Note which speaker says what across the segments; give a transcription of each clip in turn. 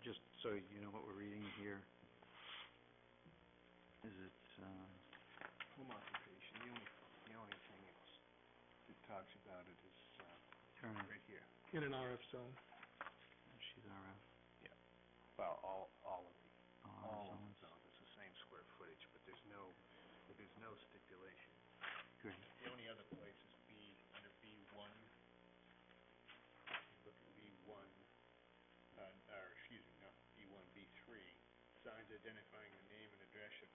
Speaker 1: uh,
Speaker 2: uh,
Speaker 3: in an RF zone.
Speaker 1: She's uh, RF,
Speaker 2: Well, all, all of the,
Speaker 1: all
Speaker 2: all of
Speaker 1: zones,
Speaker 2: the zones, it's the same square footage, but there's no, there's no stipulation.
Speaker 1: great.
Speaker 2: The only other place is B, under B one, look at B one, uh, or, excuse me, not B one, B three. Signs identifying the name and address of,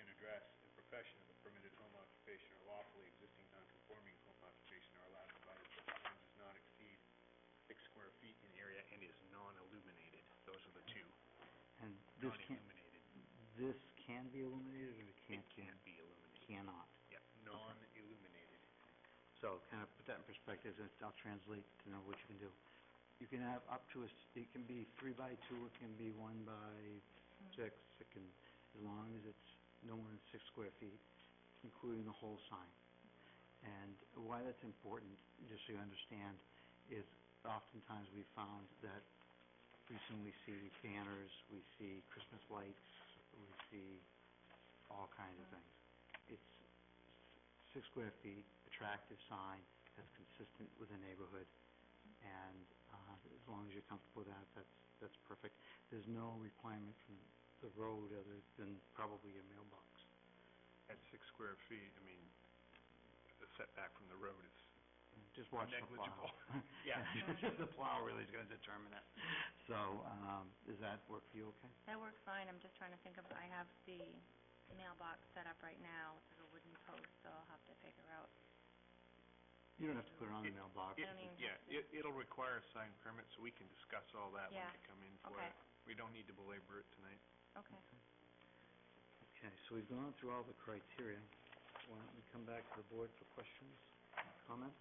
Speaker 2: and address and profession of a permitted home occupation or lawfully existing non-conforming home occupation are allowed provided the sign does not exceed six square feet in area and is non-illuminated. Those are the two,
Speaker 1: And this can,
Speaker 2: non-illuminated.
Speaker 1: this can be illuminated or it
Speaker 2: It
Speaker 1: can't be?
Speaker 2: can't be illuminated.
Speaker 1: Cannot.
Speaker 2: Yeah, non-illuminated.
Speaker 1: So kind of put that in perspective, and I'll translate to know what you can do. You can have up to a, s- it can be three by two, it can be one by six, it can, as long as it's no more than six square feet, including the whole sign. And why that's important, just so you understand, is oftentimes we found that recently we see banners, we see Christmas lights, we see all kinds of things. It's six square feet, attractive sign that's consistent with the neighborhood, and, uh, as long as you're comfortable with that, that's, that's perfect. There's no requirement from the road other than probably your mailbox.
Speaker 2: At six square feet, I mean, the setback from the road is...
Speaker 1: Just watch the plow.
Speaker 2: Negligible. Yeah.
Speaker 1: The plow really is gonna determine it. So, um, does that work for you okay?
Speaker 4: That works fine, I'm just trying to think of, I have the mailbox set up right now, it's like a wooden post, so I'll have to figure out.
Speaker 1: You don't have to put it on the
Speaker 2: It-
Speaker 1: mailbox.
Speaker 2: It-
Speaker 4: I mean-
Speaker 2: Yeah, it, it'll require a signed permit, so we can discuss all that when
Speaker 4: Yeah.
Speaker 2: we come in for
Speaker 4: Okay.
Speaker 2: it. We don't need to belabor it tonight.
Speaker 4: Okay.
Speaker 1: Okay, so we've gone through all the criteria. Why don't we come back to the board for questions, comments,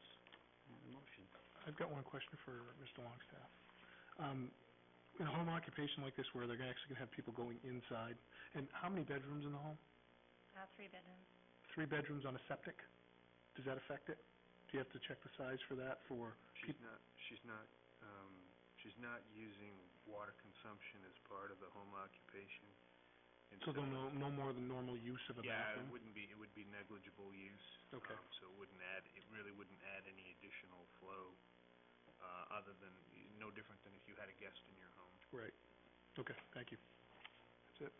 Speaker 1: and a motion?
Speaker 3: I've got one question for Mr. Longstaff. Um, in a home occupation like this where they're gonna actually gonna have people going inside, and how many bedrooms in the home?
Speaker 4: Uh, three bedrooms.
Speaker 3: Three bedrooms on a septic? Does that affect it? Do you have to check the size for that for,
Speaker 2: She's not, she's not, um, she's not using water consumption as part of the home occupation. and
Speaker 3: so they'll no, no more than normal use of a
Speaker 2: Yeah, it
Speaker 3: bathroom?
Speaker 2: wouldn't be, it would be negligible use.
Speaker 3: Okay.
Speaker 2: um, So it wouldn't add, it really wouldn't add any additional flow, uh, other than, no different than if you had a guest in your home.
Speaker 3: Right. Okay, thank you. That's it.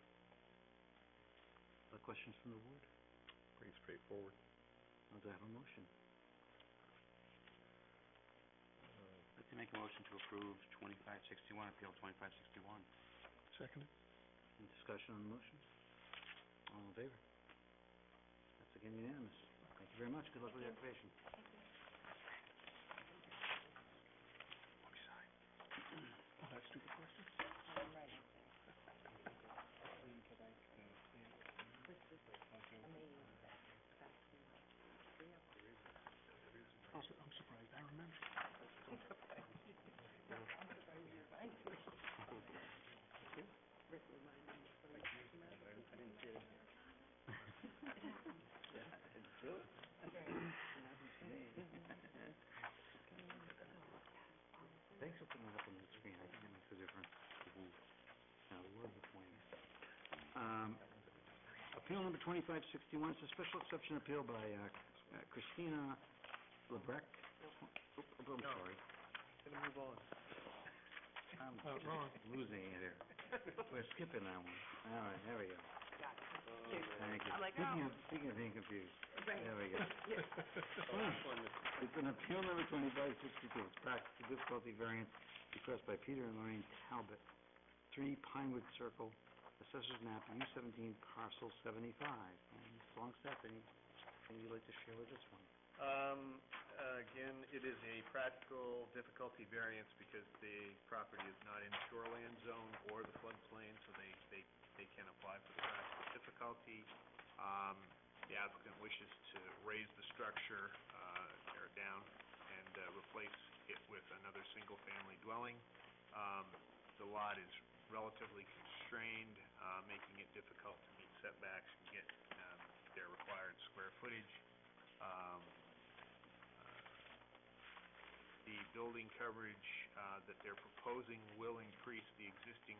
Speaker 1: Other questions from the board?
Speaker 2: Pretty straightforward.
Speaker 1: I'll have a motion. I'd like to make a motion to approve twenty-five sixty-one, appeal twenty-five sixty-one.
Speaker 3: Seconded?
Speaker 1: Any discussion on the motion? All in favor? That's again unanimous. Thank you very much. Good luck with your application.
Speaker 3: Oh, that stupid question. I'm su- I'm surprised, I remember.
Speaker 1: Thanks for putting that up on the screen. I think it makes a difference. Now, where are the points? Um, appeal number twenty-five sixty-one, it's a special exception appeal by uh, uh, Christina Lebrec. Oop, oop, I'm
Speaker 2: No.
Speaker 1: sorry.
Speaker 2: Gonna move on.
Speaker 1: I'm
Speaker 3: Uh, wrong.
Speaker 1: losing it here. We're skipping that one. All right, there we go. Thank you.
Speaker 4: I'm like,
Speaker 1: Speaking of, speaking of being confused, there we go. It's an appeal number twenty-five sixty-two, it's practical difficulty variance request by Peter and Lorraine Talbot, three Pinewood Circle, assessors map, U seventeen, parcel seventy-five. And Mr. Longstaff, any, anything you'd like to share with this one?
Speaker 2: Um, uh, again, it is a practical difficulty variance because the property is not in shoreland zone or the floodplain, so they, they, they can apply for the practical difficulty. Um, the applicant wishes to raise the structure, uh, tear it down, and, uh, replace it with another single-family dwelling. Um, the lot is relatively constrained, uh, making it difficult to meet setbacks and get, um, their required square footage um, the building coverage uh, that they're proposing will increase the existing